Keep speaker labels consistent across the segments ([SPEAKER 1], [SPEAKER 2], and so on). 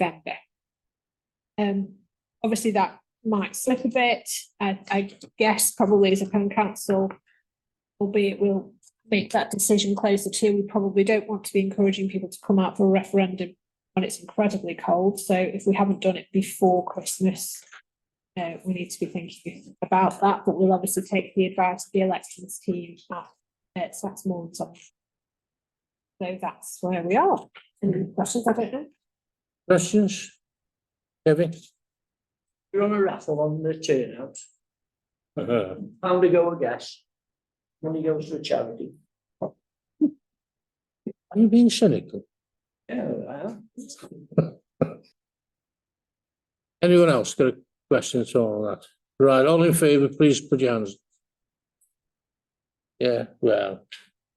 [SPEAKER 1] November. Um, obviously that might slip a bit. I, I guess probably as a town council, albeit we'll make that decision closer to, we probably don't want to be encouraging people to come out for a referendum when it's incredibly cold. So if we haven't done it before Christmas, uh, we need to be thinking about that, but we'll obviously take the advice of the elections team at, at Saxmore and so. So that's where we are. Any questions? I don't know.
[SPEAKER 2] Questions? Kevin?
[SPEAKER 3] You're on a raffle on the turnout,
[SPEAKER 2] Uh,
[SPEAKER 3] pound to go a gas. Money goes to a charity.
[SPEAKER 2] Are you being cynical?
[SPEAKER 3] Yeah, I am.
[SPEAKER 2] Anyone else got a question at all on that? Right, all in favour, please put your hands. Yeah, well,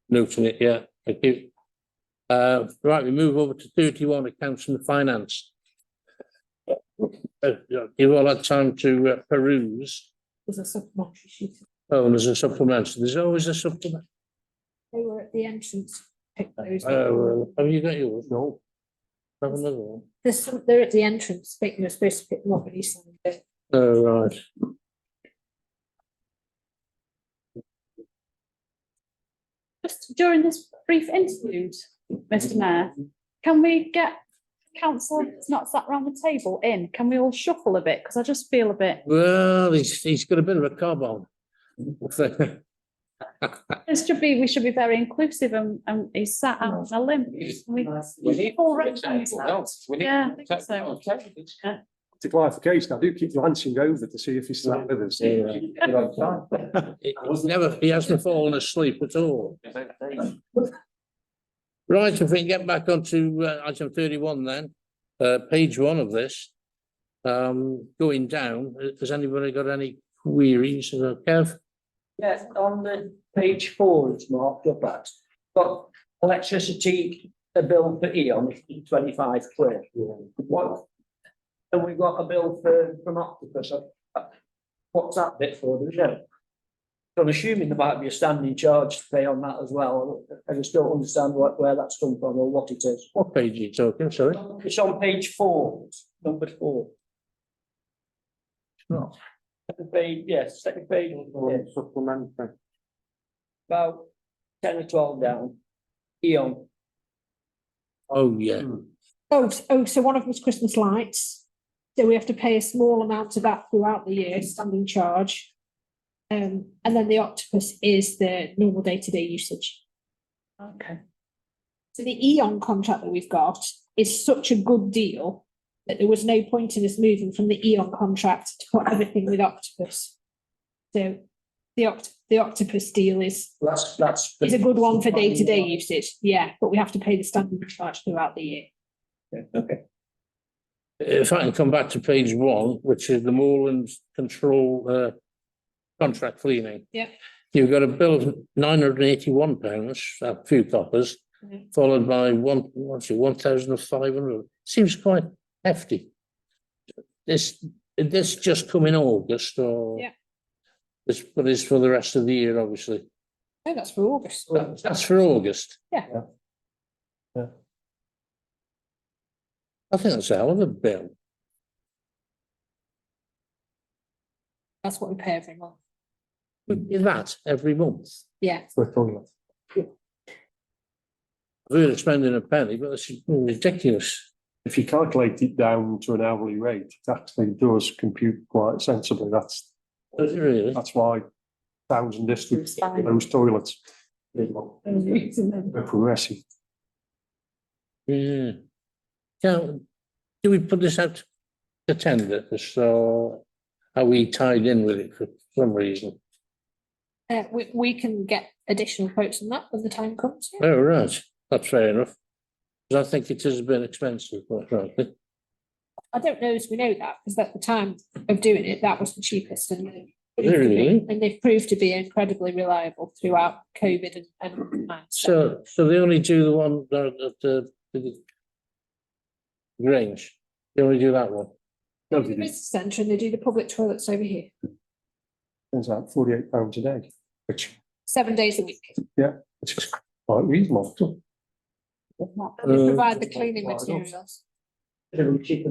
[SPEAKER 2] noting it, yeah, thank you. Uh, right, we move over to thirty-one, accounts and finance. Uh, yeah, Give all that time to uh, peruse,
[SPEAKER 1] There's a supplementary sheet.
[SPEAKER 2] oh, and there's a supplement, there's always a supplement.
[SPEAKER 1] They were at the entrance. Pick those up.
[SPEAKER 2] Oh, well, have you got yours? No. Have another one?
[SPEAKER 1] There's some, they're at the entrance, but you're supposed to pick them up when you sign it.
[SPEAKER 2] Oh, right.
[SPEAKER 4] Just during this brief interlude, Mr Mayor, can we get council that's not sat round the table in? Can we all shuffle a bit? Because I just feel a bit,
[SPEAKER 2] Well, he's, he's got a bit of a cob on.
[SPEAKER 4] this should be, we should be very inclusive and, and he's sat out on a limb. Can We,
[SPEAKER 3] We need-
[SPEAKER 4] all rectangles. Yeah, I think so.
[SPEAKER 5] to clarification, I do keep glancing over to see if he's still with us.
[SPEAKER 2] Yeah. He- He's never, he hasn't fallen asleep at all. Right, if we can get back onto uh, item thirty-one then, uh, page one of this. Um, going down, has anybody got any queries? Uh, Kev?
[SPEAKER 3] Yeah, on the page four, it's marked up at, but electricity, a bill for E Eon, is twenty-five quid. What? And we got a bill for, from Octopus, uh, what's that bit for, do you know? So I'm assuming there might be a standing charge to pay on that as well, I just don't understand what, where that's come from or what it is.
[SPEAKER 2] What page are you talking, sorry?
[SPEAKER 3] It's on page four, number four.
[SPEAKER 2] No.
[SPEAKER 3] Second page, yes, second page, yes,
[SPEAKER 5] Supplementary.
[SPEAKER 3] about ten or twelve down. Eon,
[SPEAKER 2] Oh, yeah,
[SPEAKER 1] Oh, s- oh, so one of them was Christmas lights. So we have to pay a small amount of that throughout the year, standing charge. Um, and then the octopus is the normal day-to-day usage.
[SPEAKER 4] Okay.
[SPEAKER 1] So the Eon contract that we've got is such a good deal that there was no point in us moving from the Eon contract to put everything with Octopus. So the Oct- the Octopus deal is,
[SPEAKER 3] that's, that's.
[SPEAKER 1] is a good one for day-to-day usage, yeah, but we have to pay the standing charge throughout the year.
[SPEAKER 3] Okay,
[SPEAKER 2] if I can come back to page one, which is the moorland control, uh, contract cleaning.
[SPEAKER 1] Yeah.
[SPEAKER 2] You've got a bill of nine hundred and eighty-one pounds, a few coppers,
[SPEAKER 1] Mhm.
[SPEAKER 2] followed by one, what's it, one thousand five hundred, seems quite hefty. This, did this just come in August or?
[SPEAKER 1] Yeah.
[SPEAKER 2] This, but it's for the rest of the year, obviously.
[SPEAKER 1] No, Oh, that's for August.
[SPEAKER 2] That- That's for August.
[SPEAKER 1] Yeah.
[SPEAKER 5] Yeah. Yeah.
[SPEAKER 2] I think that's a hell of a bill.
[SPEAKER 1] That's what we pay every month,
[SPEAKER 2] Is that every month?
[SPEAKER 1] yeah.
[SPEAKER 2] We're spending a penny, but it's ridiculous.
[SPEAKER 5] If you calculate it down to an hourly rate, it actually does compute quite sensibly. That's,
[SPEAKER 2] Is it really?
[SPEAKER 5] that's why towns and districts, get those toilets. They're Progressive.
[SPEAKER 2] Yeah. Now, do we put this out to tender, so are we tied in with it for some reason?
[SPEAKER 1] Uh, we, we can get additional quotes on that when the time comes, yeah.
[SPEAKER 2] Oh, right, that's fair enough. 'Cause I think it is a bit expensive, quite frankly.
[SPEAKER 1] I don't know as we know that, because at the time of doing it, that was the cheapest and they.
[SPEAKER 2] Really?
[SPEAKER 1] And they've proved to be incredibly reliable throughout COVID and, and. times.
[SPEAKER 2] So, so they only do the one that, that, the- the Grange, they only do that one.
[SPEAKER 1] They
[SPEAKER 5] No,
[SPEAKER 1] do the
[SPEAKER 5] they didn't.
[SPEAKER 1] business centre and they do the public toilets over here,
[SPEAKER 5] It's like forty-eight pounds a day, which,
[SPEAKER 1] seven days a week.
[SPEAKER 5] which is quite reasonable.
[SPEAKER 1] And they
[SPEAKER 2] Uh,
[SPEAKER 1] provide the cleaning
[SPEAKER 5] why not?
[SPEAKER 1] materials.
[SPEAKER 3] It'll be cheaper